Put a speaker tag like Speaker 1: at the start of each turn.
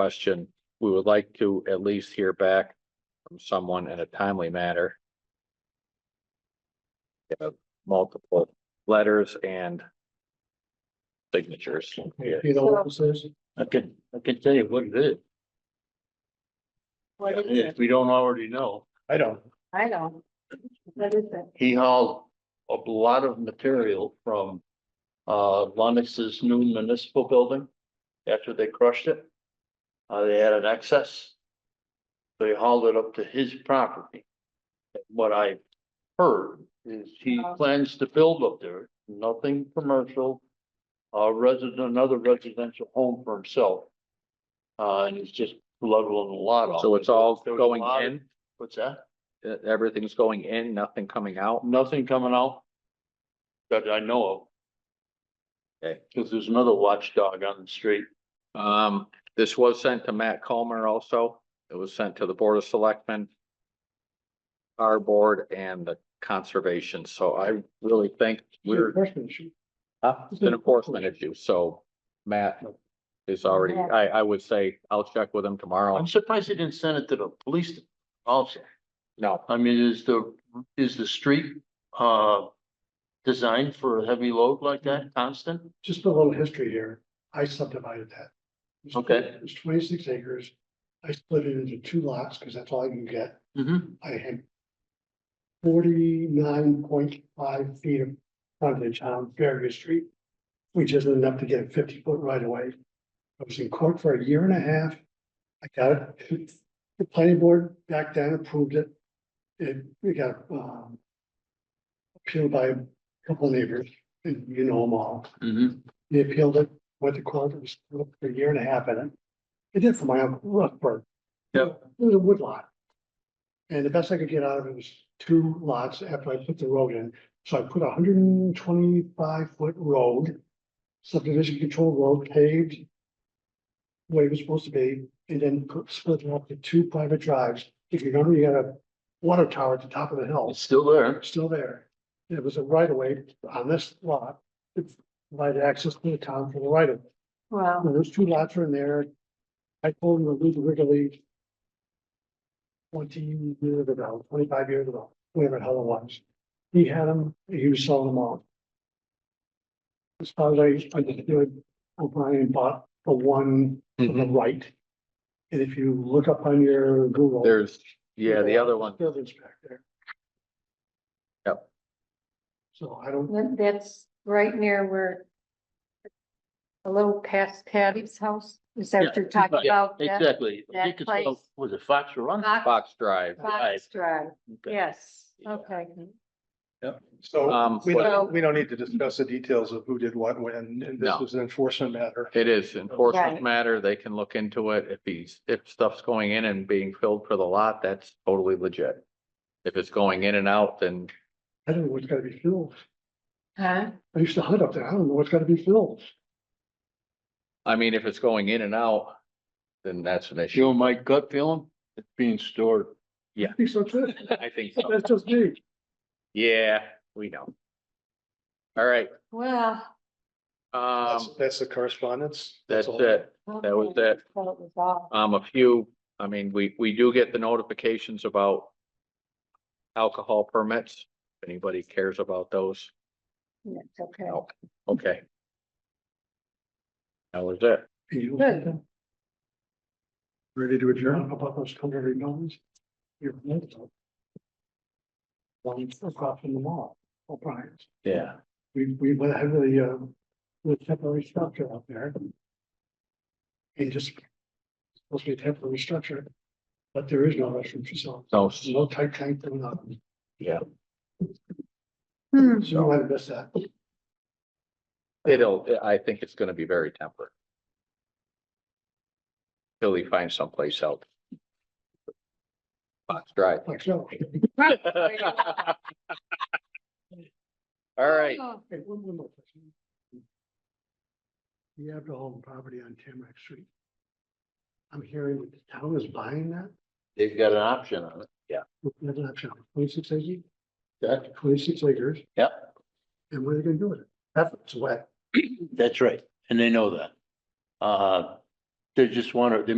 Speaker 1: question, we would like to at least hear back from someone in a timely manner. Uh, Multiple letters and signatures. Yeah.
Speaker 2: You know what this is?
Speaker 3: I can, I can tell you what it is,
Speaker 4: What is
Speaker 3: if
Speaker 4: it?
Speaker 3: we don't already know.
Speaker 2: I don't.
Speaker 4: I don't. What is it?
Speaker 3: He hauled a lot of material from uh Lennox's new municipal building after they crushed it. Uh, they had an excess. They hauled it up to his property. What I heard is he
Speaker 4: Oh.
Speaker 3: plans to build up there, nothing commercial. Uh, resident, another residential home for himself. Uh, and he's just leveling a lot off.
Speaker 1: So it's all
Speaker 3: There was a
Speaker 1: going
Speaker 3: lot of-
Speaker 1: in,
Speaker 3: What's that?
Speaker 1: Uh, everything's going in, nothing coming out.
Speaker 3: Nothing coming out? That I know of.
Speaker 1: Okay.
Speaker 3: Cause there's another watchdog on the street.
Speaker 1: Um, this was sent to Matt Comer also. It was sent to the Board of Selectmen, our board and the conservation. So I really think we're
Speaker 2: Freshman shoot.
Speaker 1: Huh? It's an enforcement issue, so Matt is already,
Speaker 4: Matt.
Speaker 1: I, I would say, I'll check with him tomorrow.
Speaker 3: I'm surprised they didn't send it to the police also.
Speaker 1: No,
Speaker 3: I mean, is the, is the street, uh, designed for a heavy load like
Speaker 1: Mm-hmm.
Speaker 3: that constant?
Speaker 2: Just a little history here. I subdivided that. It was-
Speaker 3: Okay.
Speaker 2: It was twenty-six acres. I split it into two lots because that's all I can get.
Speaker 3: Mm-hmm.
Speaker 2: I had forty-nine point five feet of frontage on Fairview Street, which isn't enough to get a fifty-foot right away. I was in court for a year and a half. I got it. The planning board back then approved it. It, we got, um, appealed by a couple neighbors, and you know them all.
Speaker 3: Mm-hmm.
Speaker 2: They appealed it, went to court, it was for a year and a half in it. It did for my uncle Rothberg.
Speaker 3: Yep.
Speaker 2: It was a wood lot. And the best I could get out of it was two lots after I put the road in. So I put a hundred and twenty-five foot road, subdivision control road paved way it was supposed to be, and then put- split it up to two private drives. If you remember, you got a water tower at the top of the hill
Speaker 3: It's still there.
Speaker 2: still there. It was a right of way on this lot. It provided access to the town for the right of.
Speaker 4: Well,
Speaker 2: Now, Those two lots are in there. I told them to leave regularly. Twenty years ago, twenty-five years ago, whatever the hell it was. He had them, he was selling them all. As far as I, I did do it, O'Brien bought the one to the right. And if you look up on your Google.
Speaker 1: there's, yeah, the other one,
Speaker 2: The other's back there.
Speaker 1: Yep.
Speaker 2: So I don't,
Speaker 4: that- that's right near where a little past Patty's house. Is that what you're talking
Speaker 3: Yeah,
Speaker 4: about? That-
Speaker 3: Exactly. I
Speaker 4: that
Speaker 3: think it's, called-
Speaker 4: place. Uh,
Speaker 3: was it Fox Run?
Speaker 4: Fox,
Speaker 1: Fox Drive.
Speaker 4: Fox Drive.
Speaker 3: Okay.
Speaker 4: Yes,
Speaker 3: Yeah.
Speaker 4: okay.
Speaker 1: Um,
Speaker 2: Oh,
Speaker 5: So we
Speaker 4: So-
Speaker 5: don't, we don't need to discuss the details of who did what when, and this
Speaker 1: No.
Speaker 5: was an enforcement matter.
Speaker 1: It is enforcement
Speaker 4: Right.
Speaker 1: matter. They can look into it. If he's, if stuff's going in and being filled for the lot, that's totally legit. If it's going in and out, then
Speaker 2: I don't know what's gotta be filled.
Speaker 4: Huh?
Speaker 2: I used to hunt up there. I don't know what's gotta be filled.
Speaker 1: I mean, if it's going in and out, then that's an
Speaker 3: You
Speaker 1: issue.
Speaker 3: know, my gut feeling, it's being stored.
Speaker 2: I think so too.
Speaker 1: I think so.
Speaker 2: That's just me.
Speaker 1: Yeah, we know. All right,
Speaker 4: Well.
Speaker 1: um,
Speaker 5: That's, that's the correspondence.
Speaker 1: that's
Speaker 5: all.
Speaker 1: it. That was
Speaker 4: okay,
Speaker 1: it.
Speaker 4: so it was all-
Speaker 1: Um, a few, I mean, we, we do get the notifications about alcohol permits, if anybody cares about those.
Speaker 4: It's okay.
Speaker 1: No. Okay. That was it.
Speaker 2: You-
Speaker 4: Good.
Speaker 2: Ready to adjourn about those culinary mountains? You're. One across from the mall, O'Brien's.
Speaker 1: Yeah.
Speaker 2: We, we went ahead with the, uh, with temporary structure out there. And just. Supposed to be a temporary structure, but there is no restroom facility,
Speaker 1: So,
Speaker 2: no tight tank, no nothing.
Speaker 1: yeah,
Speaker 4: Hmm,
Speaker 2: So you might have missed that.
Speaker 1: it'll, I think it's gonna be very temperate. Till he finds someplace else. Fox Drive.
Speaker 2: Like, so.
Speaker 1: All right,
Speaker 4: oh,
Speaker 2: Hey, one, one more question. You have the home property on Tamarack Street. I'm hearing that the town is buying that,
Speaker 3: They've got an option on it.
Speaker 2: that's an option, twenty-six acres,
Speaker 3: That,
Speaker 2: twenty-six acres.
Speaker 3: Yep.
Speaker 2: And what are they gonna do with it? That's wet.
Speaker 3: that's right. And they know that. Uh, they just wanna, they